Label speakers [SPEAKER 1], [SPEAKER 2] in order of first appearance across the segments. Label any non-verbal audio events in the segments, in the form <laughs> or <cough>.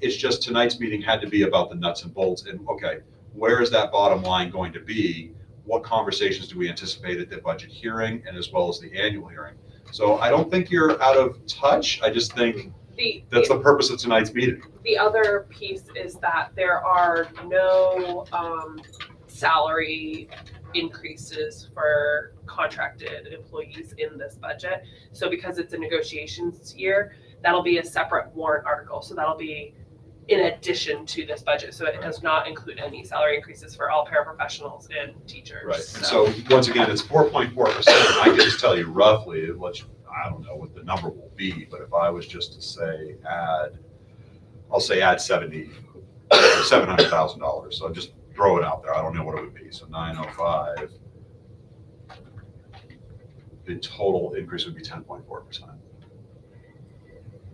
[SPEAKER 1] It's just tonight's meeting had to be about the nuts and bolts and, okay, where is that bottom line going to be? What conversations do we anticipate at the budget hearing and as well as the annual hearing? So I don't think you're out of touch. I just think
[SPEAKER 2] The,
[SPEAKER 1] that's
[SPEAKER 2] the,
[SPEAKER 1] the purpose of tonight's meeting.
[SPEAKER 2] the other piece is that there are no, um, salary increases for contracted employees in this budget. So because it's a negotiations year, that'll be a separate warrant article, so that'll be in addition to this budget. So it does not include any salary increases for all paraprofessionals and teachers.
[SPEAKER 1] Right. And so once again, it's four point four percent. I can just tell you roughly, it lets you- I don't know what the number will be, but if I was just to say add, I'll say add seventy, seven hundred thousand dollars. So just throw it out there. I don't know what it would be. So nine oh five. The total increase would be ten point four percent.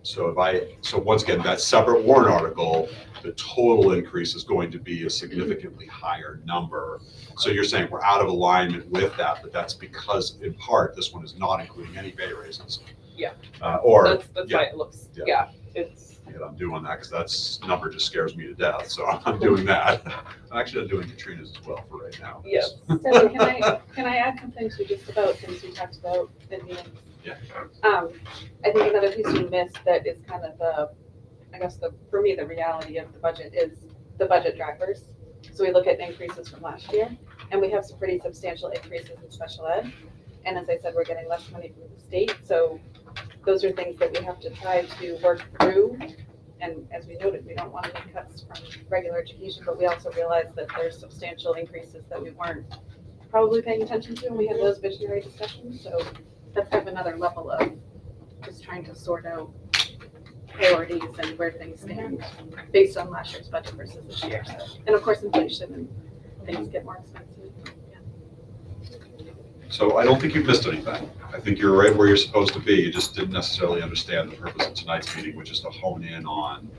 [SPEAKER 1] So if I, so once again, that separate warrant article, the total increase is going to be a significantly higher number. So you're saying we're out of alignment with that, but that's because in part, this one is not including any pay raises.
[SPEAKER 2] Yeah.
[SPEAKER 1] Uh, Or,
[SPEAKER 2] That's, that's
[SPEAKER 1] yeah.
[SPEAKER 2] why it looks,
[SPEAKER 1] Yeah.
[SPEAKER 2] yeah, it's,
[SPEAKER 1] yeah, I'm doing that because that's, number just scares me to death, so <laughs> I'm doing that. Actually, I'm doing Katrina's as well for right now.
[SPEAKER 2] yes.
[SPEAKER 3] So can I, can I add something to just about things we talked about in the end?
[SPEAKER 1] Yeah.
[SPEAKER 3] Um, I think another piece we missed that is kind of the, I guess the, for me, the reality of the budget is the budget drivers. So we look at increases from last year, and we have some pretty substantial increases in special ed. And as I said, we're getting less money from the state, so those are things that we have to try to work through. And as we noted, we don't want any cuts from regular education, but we also realize that there's substantial increases that we weren't probably paying attention to, and we had those visionary discussions, so that's kind of another level of just trying to sort out priorities and where things stand based on last year's budget versus this year. And of course, inflation and things get more expensive.
[SPEAKER 1] So I don't think you've missed anything. I think you're right where you're supposed to be. You just didn't necessarily understand the purpose of tonight's meeting, which is to hone in on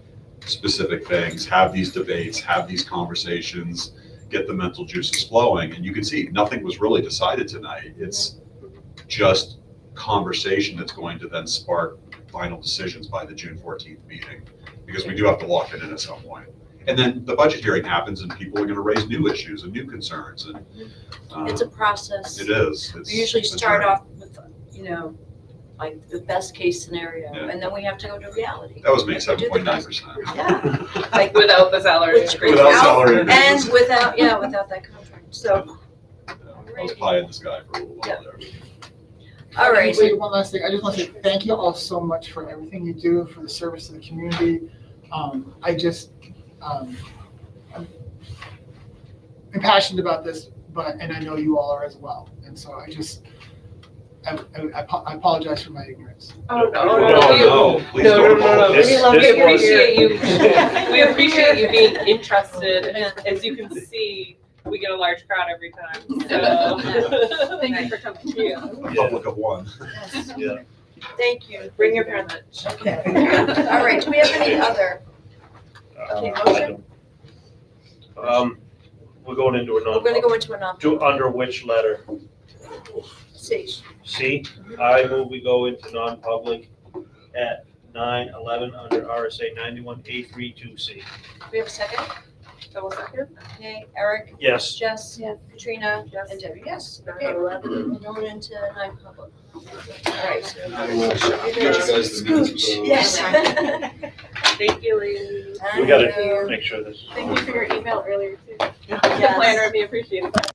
[SPEAKER 1] specific things, have these debates, have these conversations, get the mental juices flowing. And you can see, nothing was really decided tonight. It's just conversation that's going to then spark final decisions by the June fourteenth meeting, because we do have to lock it in at some point. And then the budget hearing happens and people are going to raise new issues and new concerns and. um,
[SPEAKER 4] It's a process.
[SPEAKER 1] it is. It's-
[SPEAKER 4] We usually
[SPEAKER 1] it's
[SPEAKER 4] start
[SPEAKER 1] right.
[SPEAKER 4] off with, you know, like the best case scenario,
[SPEAKER 1] Yeah.
[SPEAKER 4] and then we have to go to reality.
[SPEAKER 1] That was me,
[SPEAKER 4] Like, we
[SPEAKER 1] seven
[SPEAKER 4] do the
[SPEAKER 1] point nine
[SPEAKER 4] best-
[SPEAKER 1] percent.
[SPEAKER 4] Yeah. Like,
[SPEAKER 2] Without the salary.
[SPEAKER 4] Which-
[SPEAKER 2] increase.
[SPEAKER 1] Without salary
[SPEAKER 4] <laughs> And
[SPEAKER 1] increases.
[SPEAKER 4] without, yeah, without that contract, so,
[SPEAKER 1] <laughs> I was pie in the sky for a little while there.
[SPEAKER 4] all right.
[SPEAKER 5] Wait, one last thing. I just want to say thank you all so much for everything you do, for the service to the community. Um, I just, um, I'm I'm passionate about this, but, and I know you all are as well. And so I just, I, I- I apo- I apologize for my ignorance.
[SPEAKER 2] Oh, no, no,
[SPEAKER 1] No,
[SPEAKER 2] no, you-
[SPEAKER 1] no, please
[SPEAKER 2] No,
[SPEAKER 1] don't
[SPEAKER 2] no, no, no.
[SPEAKER 1] apologize.
[SPEAKER 2] We
[SPEAKER 6] This-
[SPEAKER 2] love
[SPEAKER 6] this
[SPEAKER 2] you. We
[SPEAKER 6] was-
[SPEAKER 2] appreciate you.
[SPEAKER 3] Yeah.
[SPEAKER 2] We appreciate you being interested.
[SPEAKER 4] Yeah.
[SPEAKER 2] As you can see, we get a large crowd every time,
[SPEAKER 3] <laughs>
[SPEAKER 2] so.
[SPEAKER 3] Thank you for coming.
[SPEAKER 2] Yeah.
[SPEAKER 1] A public of one.
[SPEAKER 4] Yes.
[SPEAKER 6] Yeah.
[SPEAKER 4] <laughs> Thank you.
[SPEAKER 2] Bring your parents.
[SPEAKER 4] All right, do we have any other? Okay, motion,
[SPEAKER 6] Um, we're going into a
[SPEAKER 4] we're gonna
[SPEAKER 6] non,
[SPEAKER 4] go into a non,
[SPEAKER 6] do, under which letter?
[SPEAKER 4] see,
[SPEAKER 6] C, I move we go into non-public at nine eleven under RSA ninety-one A three two C.
[SPEAKER 4] do we have a second?
[SPEAKER 2] Double second?
[SPEAKER 4] Okay, Eric,
[SPEAKER 6] Yes,
[SPEAKER 4] Jess,
[SPEAKER 3] Yes.
[SPEAKER 4] Katrina,
[SPEAKER 2] Yes.
[SPEAKER 4] and Debbie, yes, okay,
[SPEAKER 2] Number eleven.
[SPEAKER 1] Mm.
[SPEAKER 4] we're going into non-public. All right.
[SPEAKER 1] I will get you guys the minutes of those.
[SPEAKER 4] Yes.
[SPEAKER 2] Thank you, ladies.
[SPEAKER 6] we gotta make sure this.
[SPEAKER 3] Thank you for your email earlier too. The
[SPEAKER 4] Yes.
[SPEAKER 3] planner, we appreciate it.